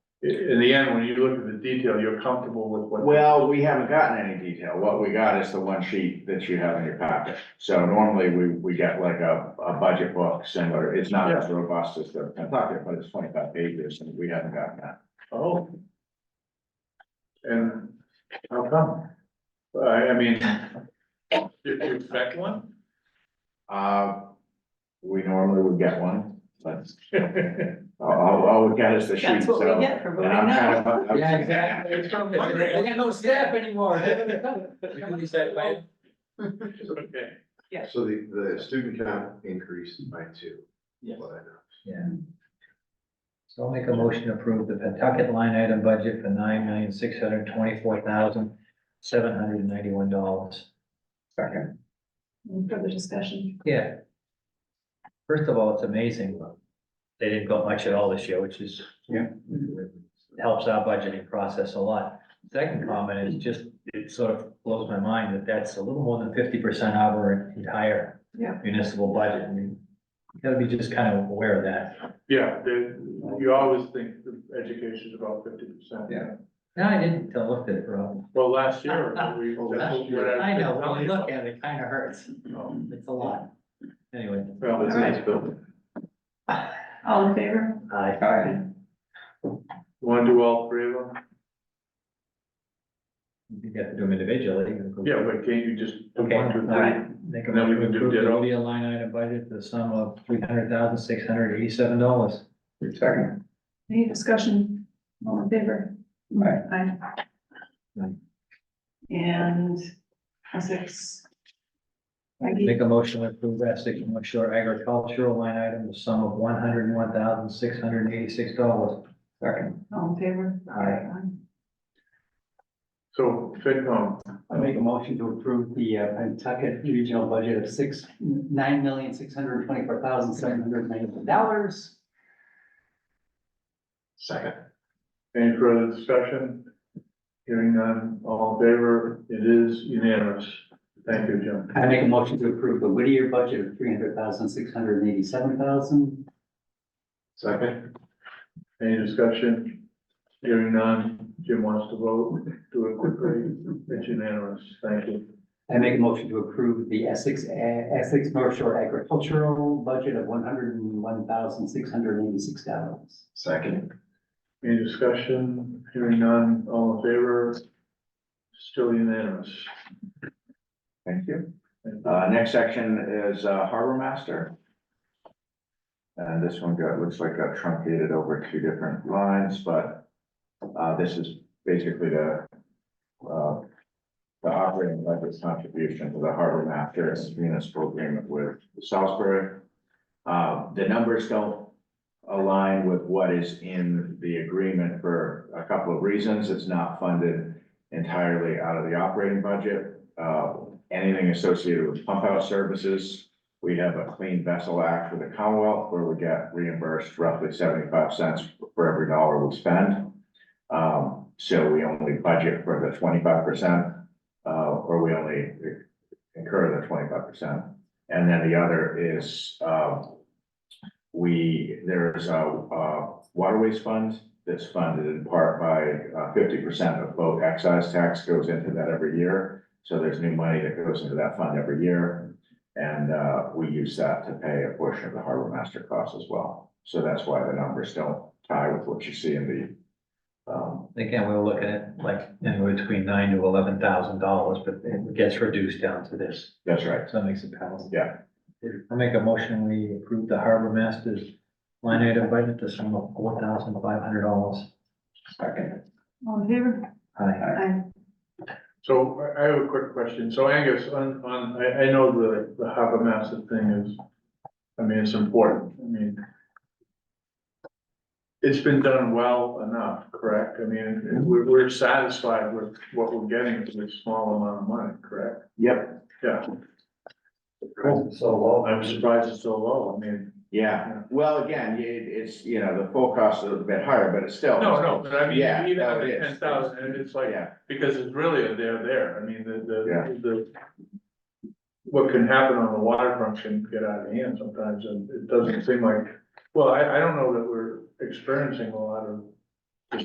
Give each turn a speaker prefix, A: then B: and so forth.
A: in the end, when you look at the detail, you're comfortable with what.
B: Well, we haven't gotten any detail. What we got is the one sheet that you have in your packet. So normally we, we get like a, a budget book similar. It's not as robust as the Kentucky, but it's twenty-five pages and we haven't gotten that.
A: Oh. And how come? I, I mean, did you expect one?
B: Uh, we normally would get one, but all, all- all we got is the sheet.
C: That's what
B: so-
C: we get for
B: and
C: voting
B: I'm kind
C: no.
B: of- I'm-
D: Yeah, exactly. They got no staff anymore. Somebody said, "Well,
A: Okay.
E: So the, the student count increased by two.
D: Yes.
E: What I know.
F: Yeah. So I'll make a motion to approve the Pentucket line item budget for nine million, six hundred twenty-four thousand, seven hundred ninety-one dollars.
B: Second,
C: Any Further discussion.
F: Yeah. First of all, it's amazing. They didn't go much at all this year, which is.
B: Yeah.
F: Helps our budgeting process a lot. Second comment is just, it sort of blows my mind that that's a little more than fifty percent of our entire.
C: Yeah.
F: Municipal budget. I mean, you gotta be just kind of aware of that.
A: Yeah, there- you always think that education is about fifty percent.
B: Yeah.
F: No, I didn't until I looked at it, Rob.
A: Well, last year, we.
E: Well,
A: that's
E: last
A: what
E: year.
A: I've
F: I
A: been
F: know, when
A: telling
F: we
A: you
F: look at it, it kind of hurts.
A: about.
F: Um, It's a lot. Anyway.
A: Well, it's
C: Alright.
A: nice building.
C: All in favor?
F: Aye.
B: Aye.
A: You wanna do all three of them?
F: You have to do them individually.
A: Yeah, but can't you just do
F: Okay,
A: one, two,
F: all
A: three?
F: right. Make a
A: Then we
F: motion
A: can
F: to
A: do
F: approve the
A: ditto.
F: media line item budget to the sum of three hundred thousand, six hundred eighty-seven dollars.
B: second,
C: Any discussion? All in favor? Aye.
F: Aye.
C: And Essex. Maggie,
F: Make a motion to approve Essex and North Shore agricultural line item, the sum of one hundred and one thousand, six hundred eighty-six dollars.
B: second.
C: all in favor?
F: Aye.
A: So, FinCom,
G: I make a motion to approve the uh, Pentucket regional budget of six, nine million, six hundred twenty-four thousand, seven hundred ninety-one dollars.
E: Second.
A: any further discussion? Hearing none, all in favor, it is unanimous. Thank you, Jim.
G: I make a motion to approve the Whittier budget of three hundred thousand, six hundred eighty-seven thousand.
E: Second.
A: Any discussion? Hearing none, Jim wants to vote, do it quickly, it's unanimous, thank you.
G: I make a motion to approve the Essex, uh, Essex North Shore agricultural budget of one hundred and one thousand, six hundred eighty-six dollars.
E: Second.
A: Any discussion? Hearing none, all in favor? Still unanimous.
B: Thank you.
A: Thank you.
B: Uh, next section is uh, Harbor Master. And this one got, looks like got truncated over two different lines, but, uh, this is basically the, uh, the operating budget contribution to the Harbor Master and municipal agreement with Salisbury. Uh, the numbers don't align with what is in the agreement for a couple of reasons. It's not funded entirely out of the operating budget. Uh, anything associated with pump out services. We have a clean vessel act with the Commonwealth where we get reimbursed roughly seventy-five cents for every dollar we spend. Um, so we only budget for the twenty-five percent, uh, or we only incur the twenty-five percent. And then the other is, uh, we, there is a, uh, waterways fund that's funded in part by uh, fifty percent of boat excise tax goes into that every year. So there's new money that goes into that fund every year. And uh, we use that to pay a portion of the harbor master costs as well. So that's why the numbers don't tie with what you see in the. Um,
F: Again, we were looking at like anywhere between nine to eleven thousand dollars, but it gets reduced down to this.
B: that's right.
F: So that makes it palatable.
B: Yeah.
F: I make a motion, we approve the harbor masters line item budget to sum of four thousand five hundred dollars.
B: Second.
C: All in favor?
F: Aye.
C: Aye.
A: So I- I have a quick question. So Angus, on, on, I, I know the, the harbor master thing is, I mean, it's important. I mean, it's been done well enough, correct? I mean, we're, we're satisfied with what we're getting for this small amount of money, correct?
B: Yep.
A: Yeah,
G: So low.
A: I'm surprised it's so low. I mean.
B: Yeah. Well, again, it, it's, you know, the full cost is a bit higher, but it's still.
A: but I
B: mean, Yeah, even no, at it is.
A: and it's
B: Yeah.
A: Because it's really a there, there, I mean, the,
B: Yeah.
A: the, the. What can happen on the waterfront can get out of hand sometimes, and it doesn't seem like, well, I, I don't know that we're experiencing a lot of